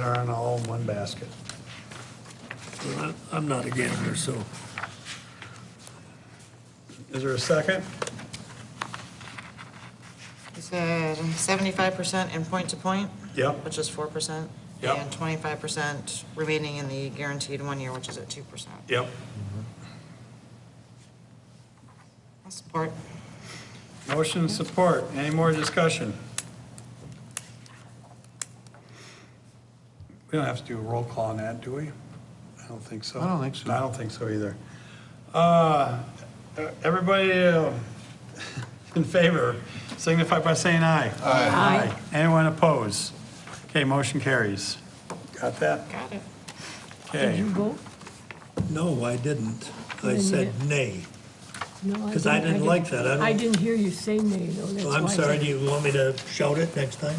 are in all in one basket. Well, I- I'm not a gambler, so Is there a second? He said seventy-five percent in point-to-point, Yep. which is four percent. Yep. And twenty-five percent remaining in the guaranteed one year, which is at two percent. Yep. Support. Motion and support. Any more discussion? We don't have to do a roll call on that, do we? I don't think so. I don't think so. I don't think so either. Uh, Everybody uh, in favor signify by saying aye. Aye. Anyone opposed? Okay, motion carries. Got that? Got it. Did Okay. you vote? no, I didn't. I Didn't said you? nay. No, 'Cause I didn't like that. I don't- I didn't hear you say nay, though, that's Well, why. I'm I sorry, said- do you want me to shout it next time?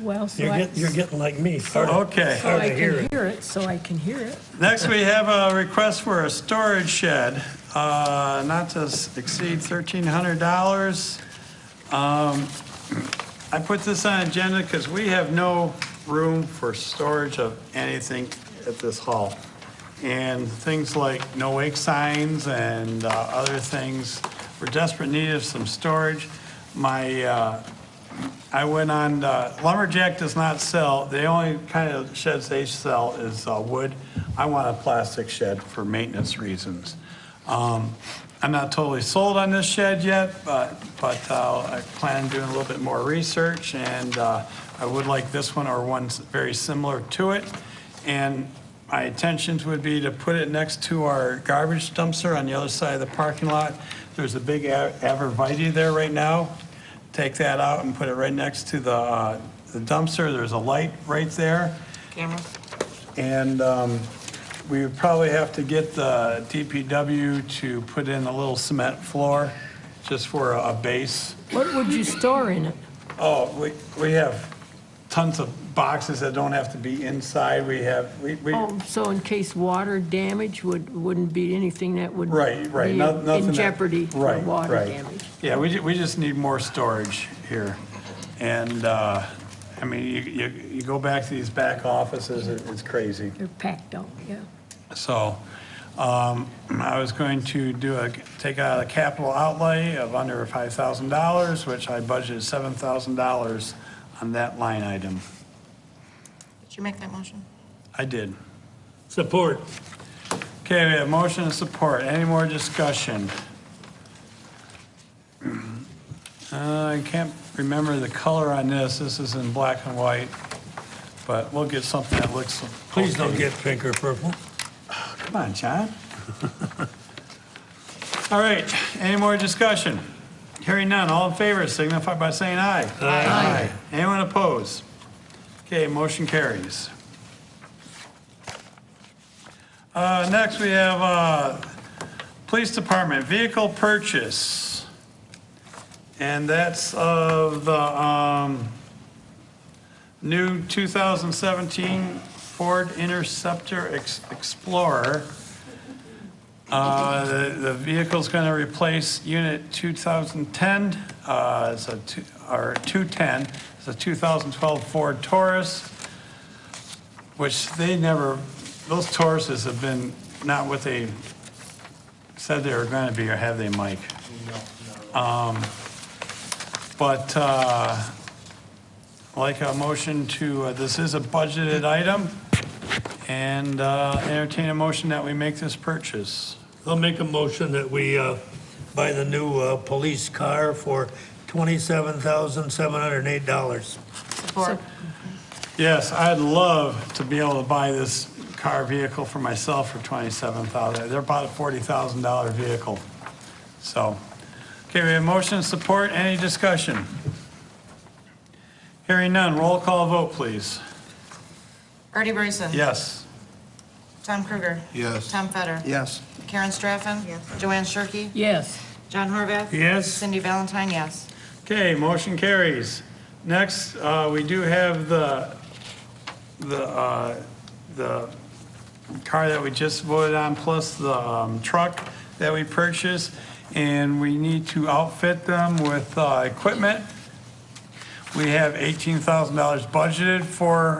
Well, so You're I. getting, you're getting like me, hard to- Okay. So hard Oh, I to hear can it. hear it, so I can hear it. Next, we have a request for a storage shed, uh, not to s- exceed $1,300. Um, I put this on agenda because we have no room for storage of anything at this hall. And things like no wake signs and uh, other things, we're desperate need of some storage. My uh, I went on, uh, lumberjack does not sell, the only kind of sheds they sell is uh, wood. I want a plastic shed for maintenance reasons. Um, I'm not totally sold on this shed yet, but, but uh, I plan on doing a little bit more research, and uh, I would like this one or one s- very similar to it. And my intentions would be to put it next to our garbage dumpster on the other side of the parking lot. There's a big a- arborvitae there right now take that out and put it right next to the uh, the dumpster. There's a light right there. Camera? And um, we would probably have to get the DPW to put in a little cement floor just for a a base. What would you store in it? Oh, we, we have tons of boxes that don't have to be inside. We have, we, we, Oh, so in case water damage would, wouldn't be anything that would. right, right. be no- nothing In that- jeopardy for right, water right. damage. Yeah, we, ju- we just need more storage here. And, uh, I mean, you, you, you go back to these back offices, it- it's crazy. They're packed out, yeah. So um, I was going to do a, take out a capital outlay of under $5,000, which I budgeted $7,000 on that line item. Did you make that motion? I did. Support. Okay, we have motion and support. Any more discussion? Uh, I can't remember the color on this. This is in black and white, but we'll get something that looks. Please don't okay. get pink or purple. Come on, John. All right, any more discussion? Hearing none, all in favor signify by saying aye. Aye. Anyone opposed? Okay, motion carries. Uh, Next, we have uh, Police Department Vehicle Purchase. And that's of the um, new 2017 Ford Interceptor Ex- Explorer. Uh, The the vehicle's going to replace Unit 2010, uh, it's a two- or 210, it's a 2012 Ford Taurus, which they never, those Tauruses have been not what they said they were going to be, or have they, Mike? Um, But uh, like a motion to, uh, this is a budgeted item, and uh, entertain a motion that we make this purchase. I'll make a motion that we uh, buy the new uh, police car for $27,708. Support. Yes, I'd love to be able to buy this car vehicle for myself for $27,000. They're about a $40,000 vehicle. So, okay, we have motion, support, any discussion? Hearing none, roll call vote, please. Artie Bryson? Yes. Tom Kruger? Yes. Tom Fetter? Yes. Karen Straffen? Yes. Joanne Shirkey? Yes, John Horvath? Yes. Cindy Valentine, yes. Okay, motion carries. Next, uh, we do have the, the, uh, the car that we just voted on, plus the um, truck that we purchased, and we need to outfit them with uh, equipment. We have $18,000 budgeted for